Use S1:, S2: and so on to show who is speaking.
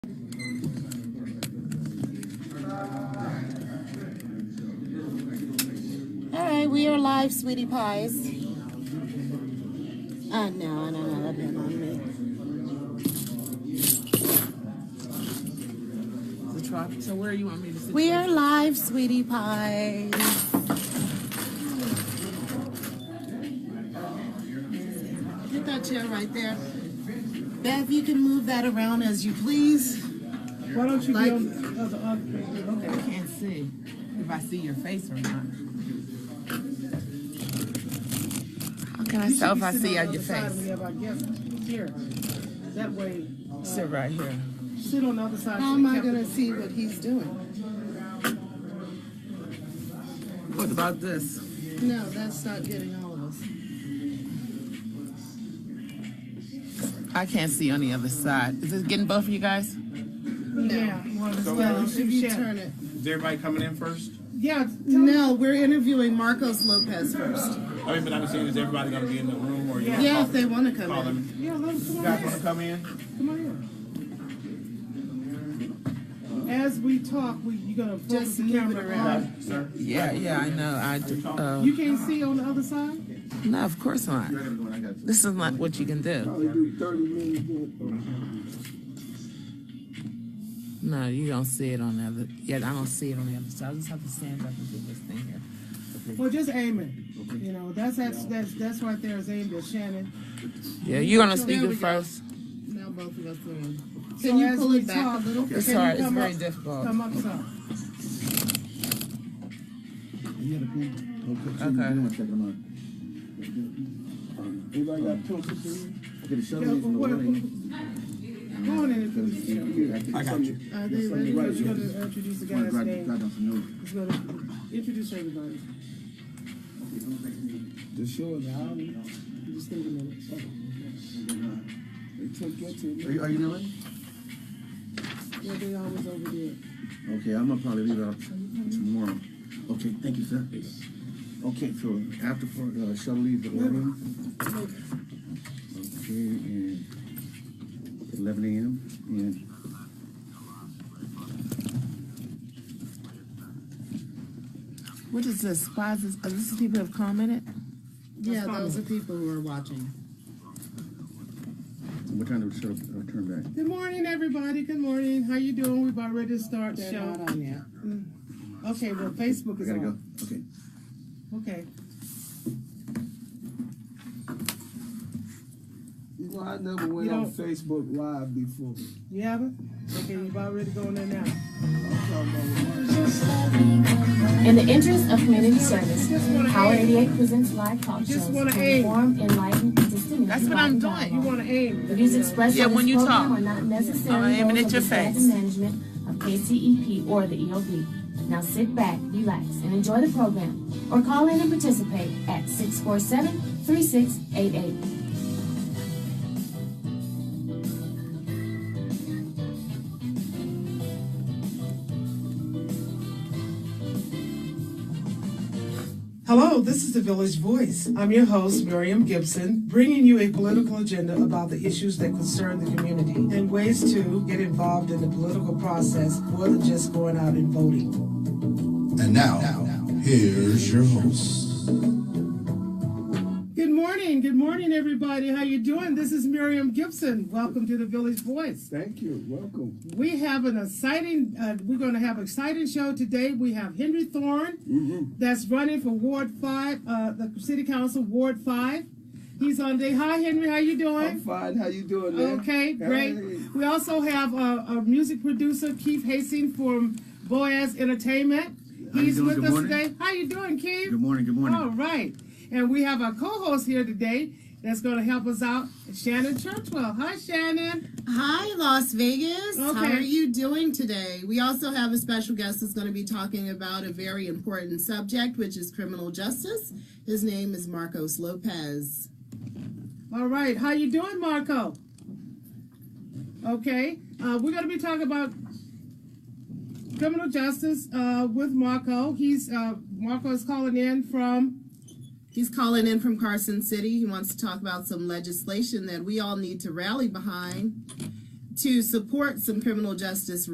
S1: we are live, sweetie pies. Uh, no, no, no, that'd be on me.
S2: The trop- So where you want me to sit?
S1: We are live, sweetie pies. Get that chair right there. Bev, you can move that around as you please.
S2: Why don't you
S1: Like-
S2: be on the other other? Okay, I can't see if I see your face or not. How can I tell if I see your face?
S3: We have our guest here. That way,
S2: Sit right here.
S3: sit on the other side.
S1: How am I gonna see what he's doing?
S2: What about this?
S1: No, that's not getting all of us.
S2: I can't see on the other side. Is this getting both of you guys?
S3: Yeah. uh,
S1: Well, if you turn it.
S4: Is everybody coming in first?
S3: Yeah,
S1: No, we're interviewing Marcos Lopez first.
S4: I mean, but I'm saying, is everybody going to be in the room or you wanna
S1: Yeah,
S4: call-
S1: if they wanna come
S4: call
S1: in.
S4: them?
S3: yeah, let us
S4: You
S3: come
S4: guys
S3: on
S4: want to come in?
S3: in. Come on in. As we talk, we, you gonna focus
S1: Just
S3: the
S1: move it
S3: camera
S1: around.
S3: on.
S4: Guys, sir?
S2: Yeah, yeah, I know. I do. Uh,
S3: You can't see on the other side?
S2: no, of course not.
S4: You're everyone, I got you.
S2: This is not what you can do.
S5: Probably do 30 minutes. then.
S2: No, you don't see it on the other. Yeah, I don't see it on the other side. I just have to stand up and do this thing here.
S3: Well, just aim it. You know, that's, that's, that's, that's right there is aimed at Shannon.
S2: Yeah, you gonna
S1: There
S2: speak
S1: we
S2: it
S1: go.
S2: first?
S1: Now both of us are in.
S3: So
S1: Can you
S3: as
S1: pull
S3: we
S1: it back
S3: talk-
S1: a little?
S2: It's
S3: Can you
S2: hard. It's
S3: come
S2: very
S3: up-
S2: difficult.
S3: Come up some.
S5: Everybody got pencils in?
S3: Yeah, but what- Go on and introduce yourself.
S5: I got you.
S3: Are they ready? We're gonna introduce the guy's name. He's gonna introduce everybody.
S5: The show is out.
S3: Just give it a minute.
S5: They took your
S6: Are you,
S5: team.
S6: are you doing?
S3: Yeah, they always over there.
S6: Okay, I'm gonna probably leave it out tomorrow. Okay, thank you, sir. Okay, so after for uh, shall leave the room. Okay, and eleven a.m. and.
S2: What is this? Why is this? Are these the people who have commented?
S1: Yeah, those are people who are watching.
S6: What time do we shut up, uh, turn back?
S3: Good morning, everybody. Good morning. How you doing? We about ready to start the
S1: They're
S3: show.
S1: not on yet.
S3: Okay, well, Facebook
S6: We
S3: is
S6: gotta go.
S3: on.
S6: Okay.
S3: Okay.
S5: You know, I never went
S3: You
S5: on
S3: don't-
S5: Facebook Live before.
S3: You have it? Okay, you about ready to go in there now.
S7: In the interest of community service, Power 88 presents live talk
S3: Just
S7: shows
S3: wanna
S7: to
S3: aim.
S7: inform, enlighten, and stimulate.
S2: That's what I'm
S7: dialogue.
S2: doing.
S3: You wanna aim.
S7: The views expressed
S2: Yeah,
S7: on
S2: when
S7: this
S2: you
S7: program
S2: talk.
S7: are not
S2: I'm
S7: necessarily
S2: aiming at
S7: those of
S2: your
S7: the staff
S2: face.
S7: and management of KCEP or the EOB. Now sit back, relax, and enjoy the program, or call in and participate at 647-3688.
S8: Hello, this is the Village Voice. I'm your host, Miriam Gibson, bringing you a political agenda about the issues that concern the community and ways to get involved in the political process more than just going out and voting.
S9: And now, here's your host.
S3: Good morning. Good morning, everybody. How you doing? This is Miriam Gibson. Welcome to the Village Voice.
S5: Thank you. Welcome.
S3: We have an exciting. Uh, we're going to have an exciting show today. We have Henry Thorne,
S6: Mm-hmm.
S3: that's running for Ward Five, uh, the City Council Ward Five. He's on day. Hi, Henry. How you
S5: I'm
S3: doing?
S5: fine. How you
S6: Oh,
S5: doing, man?
S3: Okay, great.
S5: Hey.
S3: We also have uh, a music producer, Keith Hastings from Boaz Entertainment.
S6: How you
S3: He's
S6: doing?
S3: with
S6: Good
S3: us
S6: morning.
S3: today. How you doing, Keith?
S6: Good morning, good morning.
S3: All right, and we have our co-host here today that's going to help us out, Shannon Churchwell. Hi, Shannon.
S1: Hi, Las Vegas. How
S3: Okay.
S1: are you doing today? We also have a special guest that's going to be talking about a very important subject, which is criminal justice. His name is Marcos Lopez.
S3: All right, how you doing, Marco? Okay, uh, we're going to be talking about criminal justice uh, with Marco. He's uh, Marco is calling in from.
S1: He's calling in from Carson City. He wants to talk about some legislation that we all need to rally behind to support some criminal justice